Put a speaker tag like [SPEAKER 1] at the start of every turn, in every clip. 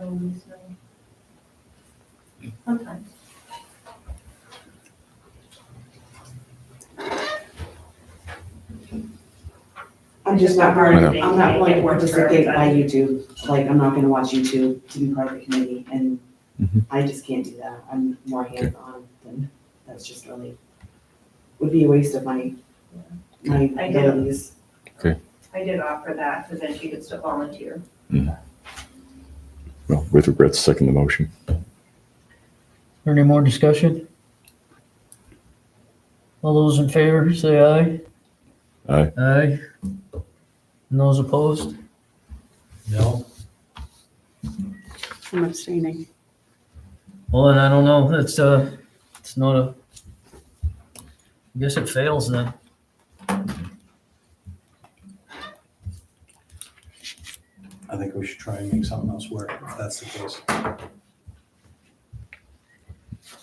[SPEAKER 1] always, so. Sometimes.
[SPEAKER 2] I'm just not part of,
[SPEAKER 3] I
[SPEAKER 1] know.
[SPEAKER 2] I'm not willing to participate by YouTube, like, I'm not gonna watch YouTube to be part of the committee, and
[SPEAKER 3] Mhm.
[SPEAKER 2] I just can't do that, I'm more hands-on, than that's just really, would be a waste of my, my
[SPEAKER 1] I get it.
[SPEAKER 2] abilities.
[SPEAKER 1] I did offer that, because then she could still volunteer.
[SPEAKER 3] Well, with regrets, second the motion.
[SPEAKER 4] Any more discussion? All those in favor, say aye.
[SPEAKER 3] Aye.
[SPEAKER 4] Aye. And those opposed?
[SPEAKER 5] No,
[SPEAKER 6] I'm abstaining.
[SPEAKER 4] Well, and I don't know, it's, uh, it's not a, I guess it fails then.
[SPEAKER 5] I think we should try and make something else work, if that's the case.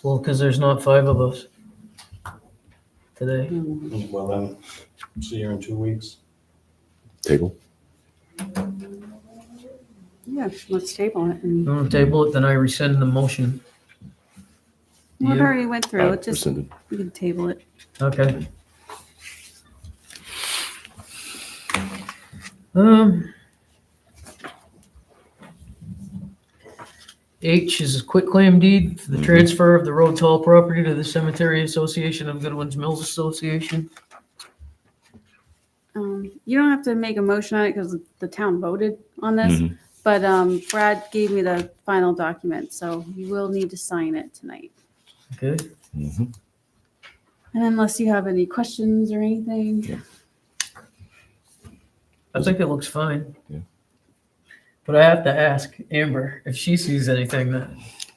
[SPEAKER 4] Well, because there's not five of us today.
[SPEAKER 6] Mm.
[SPEAKER 5] Well, then, see you in two weeks.
[SPEAKER 3] Table?
[SPEAKER 6] Yeah, let's table it. And
[SPEAKER 4] You want to table it, then I rescind the motion.
[SPEAKER 6] we
[SPEAKER 4] You-
[SPEAKER 6] already went through
[SPEAKER 3] Aye,
[SPEAKER 6] it. Just,
[SPEAKER 3] Uh, Rescinded.
[SPEAKER 6] we can table it.
[SPEAKER 4] Okay. Um. H is a quitclaim deed for the
[SPEAKER 3] Mhm.
[SPEAKER 4] transfer of the Rhodes Hall property to the Cemetery Association of Goodwin's Mills Association.
[SPEAKER 6] Um, You don't have to make a motion on it because the town voted on this.
[SPEAKER 3] Mhm.
[SPEAKER 6] But um, Brad gave me the final document, so you will need to sign it tonight.
[SPEAKER 4] Okay,
[SPEAKER 3] Mhm.
[SPEAKER 6] And unless you have any questions or anything.
[SPEAKER 4] I think it looks fine.
[SPEAKER 3] Yeah.
[SPEAKER 4] But I have to ask Amber if she sees anything that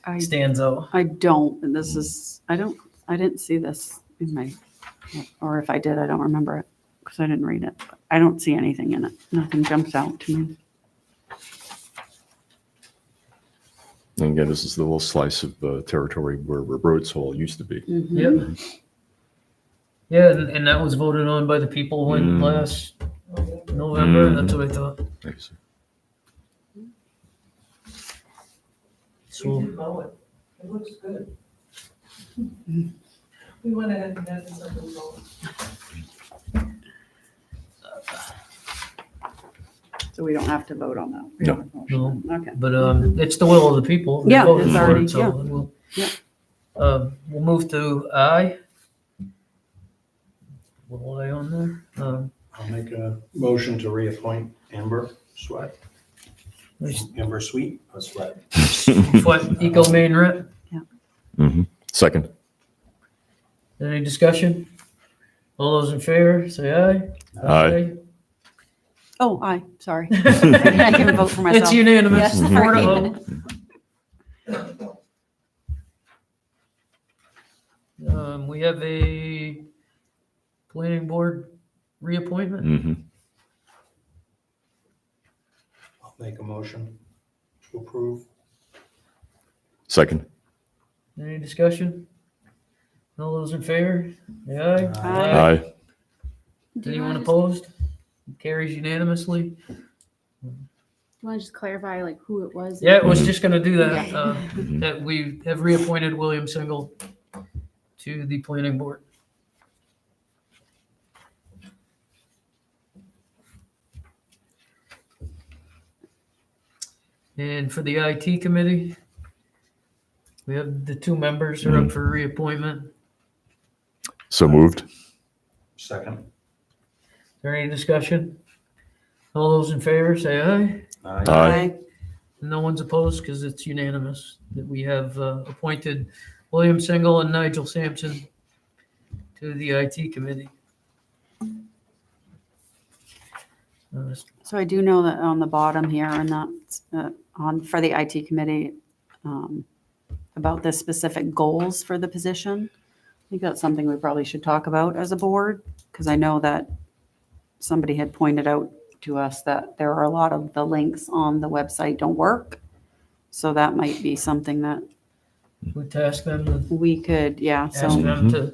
[SPEAKER 6] I,
[SPEAKER 4] stands out.
[SPEAKER 6] I don't, and this is, I don't, I didn't see this in my, or if I did, I don't remember it because I didn't read it. I don't see anything in it. Nothing jumps out to me.
[SPEAKER 3] And again, this is the little slice of uh, territory where Rhodes Hall used to be.
[SPEAKER 6] Mhm.
[SPEAKER 4] Yeah, and, and that was voted on by the people when
[SPEAKER 3] Mm.
[SPEAKER 4] last November,
[SPEAKER 3] Mhm.
[SPEAKER 4] that's what I thought.
[SPEAKER 3] Thank you, sir.
[SPEAKER 4] So-
[SPEAKER 7] We did mow it. It looks good. We went ahead and added something more.
[SPEAKER 6] So we don't have to vote on that. We
[SPEAKER 3] No.
[SPEAKER 6] don't have a motion. Okay.
[SPEAKER 4] But um, it's the will of the people. They
[SPEAKER 6] Yeah,
[SPEAKER 4] voted
[SPEAKER 6] it's
[SPEAKER 4] for it,
[SPEAKER 6] already-
[SPEAKER 4] so
[SPEAKER 6] yeah.
[SPEAKER 4] we'll-
[SPEAKER 6] Yeah.
[SPEAKER 4] Um, We'll move to I. What was I on there? Um,
[SPEAKER 5] I'll make a motion to reappoint Amber Sweat,
[SPEAKER 4] there's-
[SPEAKER 5] Amber Sweet, or Sweat.
[SPEAKER 4] What, Eco Main Rep?
[SPEAKER 3] Mhm. Mm-hmm. Second.
[SPEAKER 4] Any discussion? All those in favor, say aye.
[SPEAKER 3] Aye.
[SPEAKER 6] Oh, aye, sorry. I can
[SPEAKER 4] It's
[SPEAKER 6] vote for myself.
[SPEAKER 4] unanimous,
[SPEAKER 6] Yes,
[SPEAKER 4] four to
[SPEAKER 6] sorry.
[SPEAKER 4] vote. Um, We have a planning board reappointment.
[SPEAKER 3] Mhm.
[SPEAKER 5] I'll make a motion to approve.
[SPEAKER 3] Second.
[SPEAKER 4] Any discussion? All those in favor, say aye.
[SPEAKER 6] Aye.
[SPEAKER 3] Aye.
[SPEAKER 6] Do you
[SPEAKER 4] Anyone
[SPEAKER 6] want to
[SPEAKER 4] opposed? Carries unanimously.
[SPEAKER 6] Do you want to just clarify like who it was?
[SPEAKER 4] Yeah, I was
[SPEAKER 3] Mhm.
[SPEAKER 4] just gonna do that,
[SPEAKER 6] Okay.
[SPEAKER 4] uh,
[SPEAKER 3] Mhm.
[SPEAKER 4] that we have reappointed William Single to the planning board. And for the IT committee, we have the two members are up for reappointment. Is
[SPEAKER 3] So moved.
[SPEAKER 5] Second.
[SPEAKER 4] there any discussion? All those in favor, say aye.
[SPEAKER 5] Aye.
[SPEAKER 3] Aye.
[SPEAKER 4] No one's opposed because it's unanimous that we have uh, appointed William Single and Nigel Sampson to the IT committee. Uh,
[SPEAKER 6] So I do know that on the bottom here and that's uh, on, for the IT committee, um, about the specific goals for the position. I think that's something we probably should talk about as a board, because I know that somebody had pointed out to us that there are a lot of the links on the website don't work. So that might be something that
[SPEAKER 4] We task them to
[SPEAKER 6] we could, yeah, so.
[SPEAKER 4] ask them to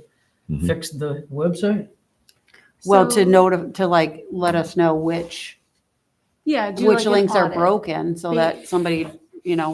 [SPEAKER 3] Mhm.
[SPEAKER 4] fix the website.
[SPEAKER 6] Well, to
[SPEAKER 8] So-
[SPEAKER 6] note, to like, let us know which,
[SPEAKER 8] Yeah. do
[SPEAKER 6] which
[SPEAKER 8] like an
[SPEAKER 6] links are
[SPEAKER 8] audit.
[SPEAKER 6] broken so
[SPEAKER 8] Be-
[SPEAKER 6] that somebody, you know,